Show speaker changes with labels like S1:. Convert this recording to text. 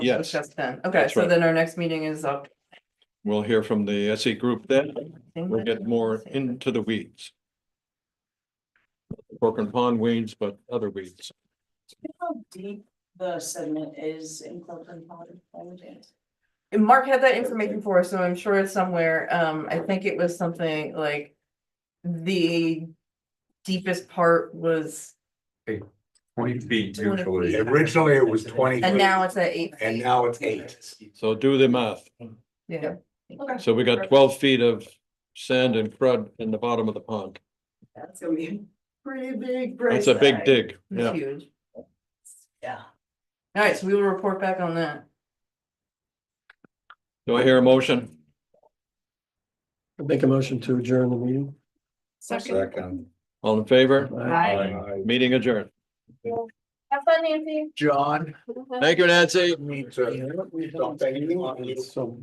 S1: Yes,
S2: Just then, okay,
S1: That's
S2: so
S1: right.
S2: then our next meeting is up.
S1: we'll hear from the SE group then. We'll get more
S2: in.
S1: into the weeds. Pork and pond weeds, but other weeds.
S3: How deep the sediment is in Oh, Cloven Pond? by any chance?
S2: Mark had that information for us, so I'm sure it's somewhere, um, I think it was something like. The deepest part was,
S4: Twenty feet
S2: 20
S4: usually.
S2: feet.
S5: Originally, it was 20.
S2: and now it's at eight.
S5: And
S2: feet.
S5: now it's eight.
S1: So do the math.
S2: Yeah.
S3: Okay,
S1: So we got twelve feet of sand and crud in the bottom of the pond.
S3: that's gonna be a pretty big.
S1: That's a big
S3: price tag.
S1: dig. Yeah.
S2: Huge.
S3: Yeah.
S2: All right, so we will report back on that.
S1: Do I hear a motion?
S6: Make a motion to adjourn the meeting.
S4: Second.
S1: All in favor?
S3: Bye.
S1: Meeting adjourned.
S3: Have fun, Nancy.
S5: John.
S1: Thank you, Nancy.
S5: Need to.
S6: Yeah.
S5: Don't say anything.
S6: So